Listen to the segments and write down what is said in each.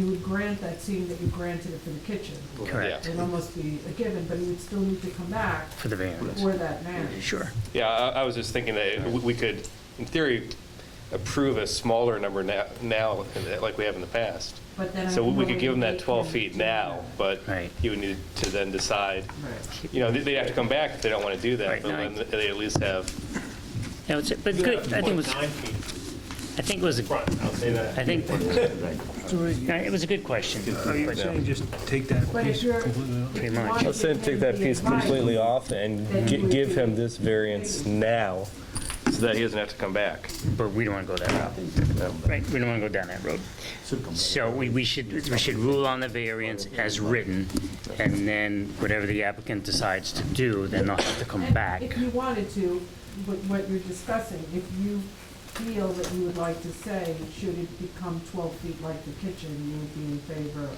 you would grant that same that you granted it for the kitchen. Correct. It would almost be a given, but you would still need to come back for the variance. for that variance. Sure. Yeah, I, I was just thinking that we- we could, in theory, approve a smaller number now, now, like we have in the past. But then I So we don't could give them know that if they 12 can feet do now, that. but Right. you would need to then decide, Right. you know, they- they'd have to come back if they don't want to do that, Right, but nine. then they at least have, No, it's- But good, I think it was, I think it was, a- front, I'll say that. I think, it was a good question. Are you saying just take that But if piece you're. completely out? if you much. wanted I'll to say give take that the piece advice, completely off and gi- give him this variance now. So that he doesn't have to come back. But we don't want to go that route. Right, we don't want to go down that road. So we, we should, we should rule on the variance as written, and then whatever the applicant decides to do, then they'll have to come And back. If you wanted to, what, what you're discussing, if you feel that you would like to say, should it become twelve feet like the kitchen, you would be in favor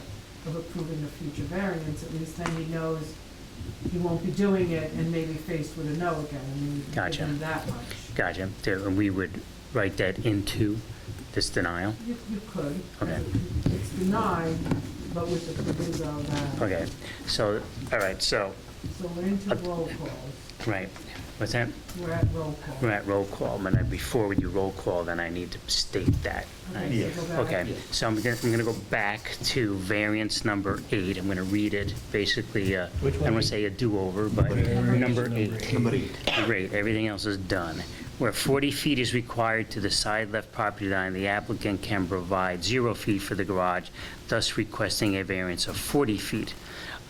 of approving a future variance, at least then he knows he won't be doing it and maybe faced with a no again, I mean, you could give Gotcha. him that much. Gotcha. So We would write that into this denial. You, you could. Okay. It's denied, but with the proviso that, Okay, so, all right, so, so we're into roll call, right, what's that? we're at roll call. We're at roll call, and then before we do roll call, then I need to state that. right? Okay, so go back. Okay, so I'm gonna, I'm gonna go back to variance number eight, I'm gonna read it, basically, uh, I don't wanna say a do-over, but number eight. Number eight. Great, everything else is done. Where 40 feet is required to the side left property line, the applicant can provide zero feet for the garage, thus requesting a variance of 40 feet.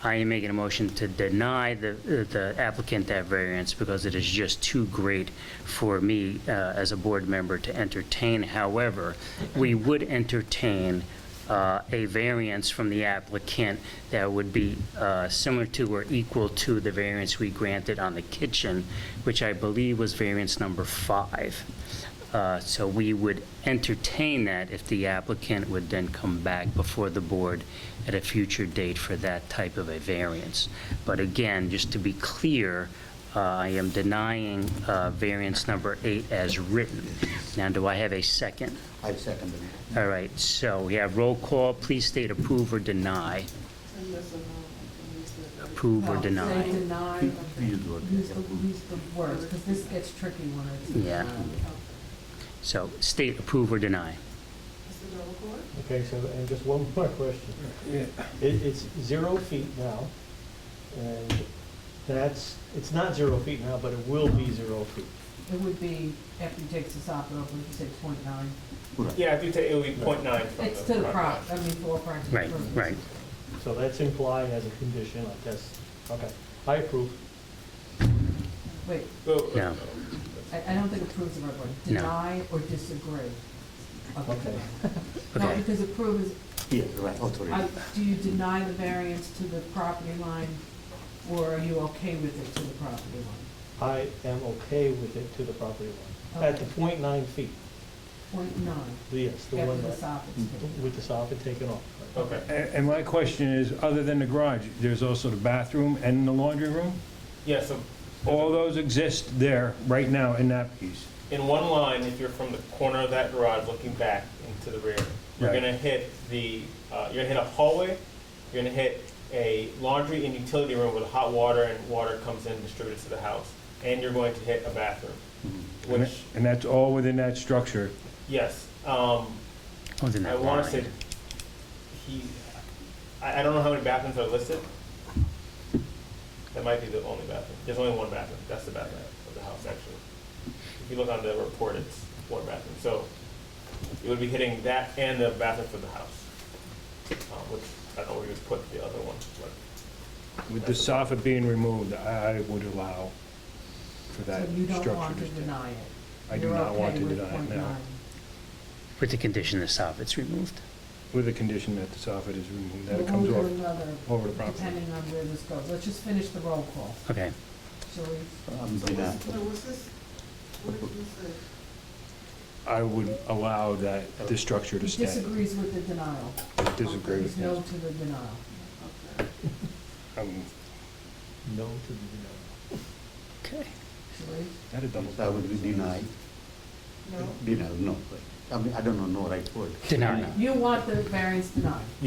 I am making a motion to deny the, the applicant that variance because it is just too great for me uh, as a board member to entertain. However, we would entertain uh, a variance from the applicant that would be uh, similar to or equal to the variance we granted on the kitchen, which I believe was variance number five. Uh, So we would entertain that if the applicant would then come back before the board at a future date for that type of a variance. But again, just to be clear, uh, I am denying uh, variance number eight as written. Now, do I have a second? I second it. All right, so we have roll call, please state approve or deny. Approve or No, Say deny. deny, use the, use the words, because this gets tricky when it's. uh, Yeah. So state approve or deny. Okay, so, and just one more question. It, it's zero feet now, and that's, it's not zero feet now, but it will be zero feet. It would be, after you take this off, it would be say point nine. Yeah, if you take, it would be point nine It's to the prop, I mean, for all practical Right, purposes. right. So that's implied as a condition, I guess. Okay, I approve. Wait, No, I, I don't think approve's the right word. No. Deny or disagree. Okay. No, Okay. because approve is, Yeah, right, authority. I- do you deny the variance to the property line, or are you okay with it to the property line? I am okay with it to the property line. At the point nine feet, Point nine, yes, the after one the that, soffit's taken. with the soffit taken off. Okay. A- And my question is, other than the garage, there's also the bathroom and the laundry room? Yeah, so All those exist there right now in that piece. in one line, if you're from the corner of that garage looking back into the rear, you're Right. gonna hit the, uh, you're gonna hit a hallway, you're gonna hit a laundry and utility room where the hot water and water comes in and distributed to the house, and you're going to hit a bathroom, And which, that- And that's all within that structure. yes, um, within I that wanna say, line. he, I, I don't know how many bathrooms are listed. That might be the only bathroom, there's only one bathroom, that's the bathroom of the house, actually. If you look on the report, it's one bathroom, so it would be hitting that and the bathroom for the house. Uh, which, I don't know where you would put the other one, but, With the soffit being removed, I I would allow for that So you don't structure want to to stay. deny it? I do You're not want okay to with deny it point now, nine. With the condition the soffit's removed. with the condition that the soffit is removed, that But it comes we'll do off another, over the property. depending on where this goes. Let's just finish the roll call, Okay, shall we? Um, yeah. I would allow that, the structure He to stay. disagrees with the denial. I Disagree with He's no him. to the denial. Um, No to the denial. okay. Shall we? That a double. I would be deny. No. Deny, no. I mean, I don't know, no right word. Deny. You want the variance denied?